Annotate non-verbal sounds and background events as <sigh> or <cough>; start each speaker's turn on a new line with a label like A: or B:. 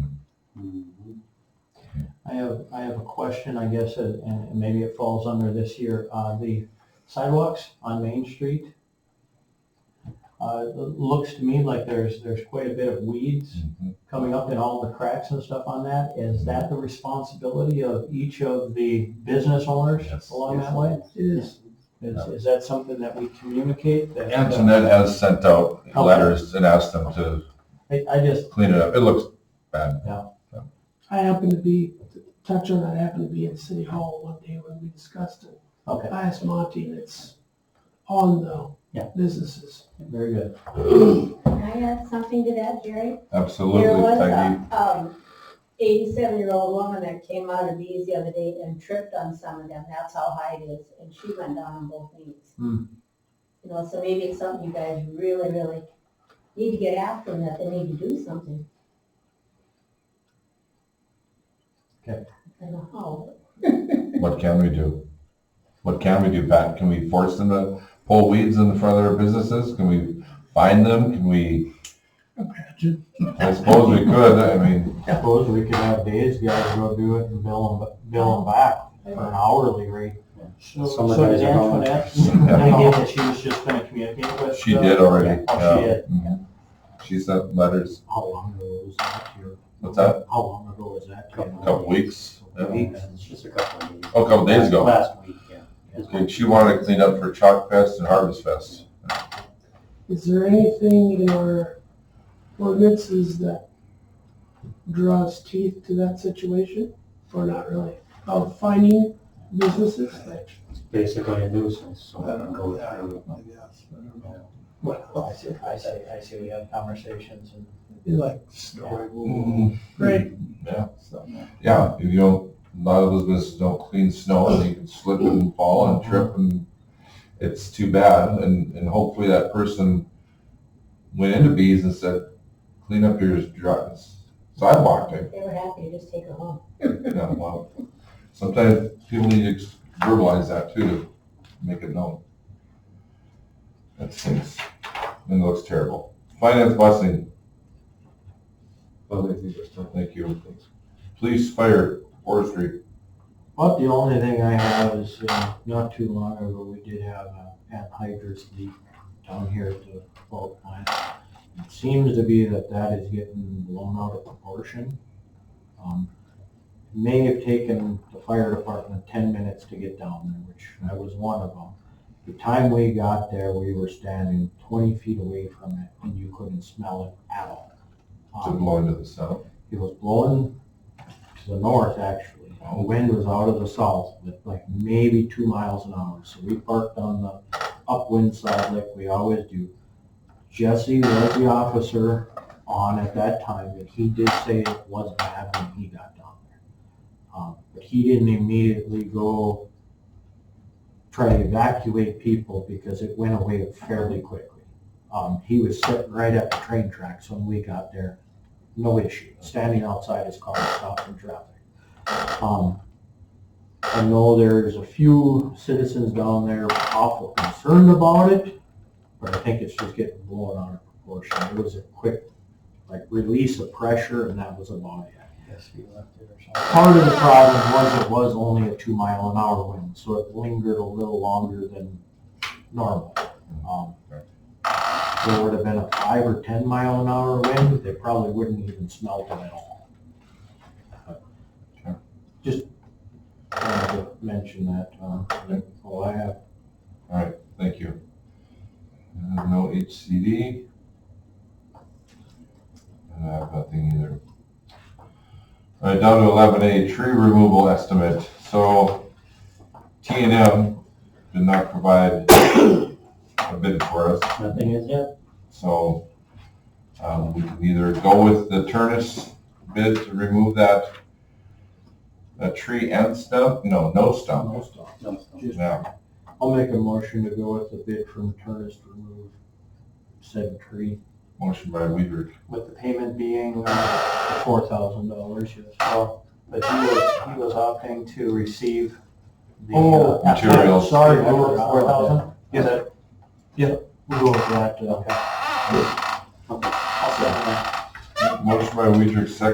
A: have, Mm-hmm. I have a question, I guess, uh, and maybe it falls under this here. Uh, The sidewalks on Main Street, uh, it looks to me like there's, there's quite a bit of weeds coming up in all the cracks and stuff on that. Is that the responsibility of each of the business owners
B: Yes.
A: along that way? Is, is is that something that we communicate? that-
B: Antoinette has sent out letters and asked them to
A: I, I just,
B: clean it up. It looks bad.
C: I happened to be, to touch on that, I happened to be at City Hall one day when we discussed it.
A: okay,
C: I asked Monty, and it's on the
A: Yeah.
C: businesses.
A: very good.
D: Can I add something to that, Jerry? There
B: Absolutely,
D: was
B: Peggy.
D: a, um, eighty-seven-year-old woman that came out of these the other day and tripped on some of them, that's how high it is, and she went down on both knees.
A: Hmm.
D: You know, so maybe it's something you guys really, really need to get after them, that they need to do something.
A: Okay.
D: I don't know <laughs> how,
B: What can we do? What can we do, Pat? Can we force them to pull weeds in the front of their businesses? Can we find them? Can we,
C: Imagine.
B: I suppose we could. I mean, <laughs>
A: Suppose we could have Dave's guys go do it and bill them, bill them back for an hourly rate. So
E: Some
A: so
E: guys
A: did
E: are going-
A: Antoinette, I get that she was just gonna communicate with.
B: she
A: uh,
B: did already.
A: Oh, she did.
B: Mhm. She sent letters.
A: How long ago was that here?
B: What's that?
A: How long ago was that?
B: A Couple weeks. Yeah.
A: Weeks.
E: It's just a couple of days.
B: Oh, a couple days ago.
E: Last week, yeah.
B: And She wanted to clean up for Chalk Fest and Harvest Fest.
C: Is there anything in our ordinances that draws teeth to that situation? Or not really? Of finding businesses? like-
E: It's basically a nuisance, so I don't go through.
C: I guess. I don't know.
E: Yeah.
C: Well,
A: I see, I see, I see, we have conversations and.
C: you like, "Mm-hmm."
A: Mm-hmm.
C: right,
B: Yeah, if you don't, a lot of those businesses don't clean snow and you can slip and fall and trip and it's too bad. And, and hopefully that person went into bees and said, clean up your dri- sidewalk. I-
D: they were happy to just take her home.
B: you know, well, Sometimes people need to ex- verbalize that too, to make it known. That stinks and looks terrible. Finance busing,
E: Well, I think we're still-
B: thank you. Police, fire, forestry,
A: Well, the only thing I have is, uh, not too long ago, we did have uh, a an hydrous leak down here at the fault plant. It seems to be that that is getting blown out of proportion. Um, it May have taken the fire department ten minutes to get down there, which I was one of them. The time we got there, we were standing twenty feet away from it, and you couldn't smell it at all.
B: to
A: Um,
B: blow into the south.
A: it was blowing to the north, actually. The wind was out of the south, but like maybe two miles an hour. So we parked on the upwind side like we always do. Jesse was the officer on at that time, and he did say it was bad when he got down there. Um, But he didn't immediately go try to evacuate people because it went away fairly quickly. Um, He was sitting right at the train tracks when we got there no issue, standing outside his car, stopping traffic. Um, I know there's a few citizens down there awful concerned about it, but I think it's just getting blown out of proportion. It was a quick, like, release of pressure, and that was about it.
E: Yes, we left it or something.
A: Part of the problem was it was only a two mile an hour wind, so it lingered a little longer than normal. Um, if There would have been a five or ten mile an hour wind, they probably wouldn't even smelt it at all. But
B: Sure.
A: Just wanted to mention that, um, that's all I have.
B: Thank you. Uh, No HCD. And Uh, I have nothing either. All right, down to eleven A, tree removal estimate. So T and M did not provide a bid for us,
A: Nothing is yet?
B: so um, we can either go with the Turnus bid to remove that that tree and stump, no, no stump.
A: No stuff.
E: No, it's not.
B: Yeah,
A: I'll make a motion to go with the bid from Turnus to remove said tree.
B: motion by Weaver.
A: with the payment being four thousand dollars, yes. Well, But he was, he was opting to receive the.
B: Oh,
A: uh,
B: materials.
A: Sorry, we were four thousand?
E: Yeah.
A: Yeah, we will with that, uh, okay. I'll second that.
B: Motion by Weidrich, second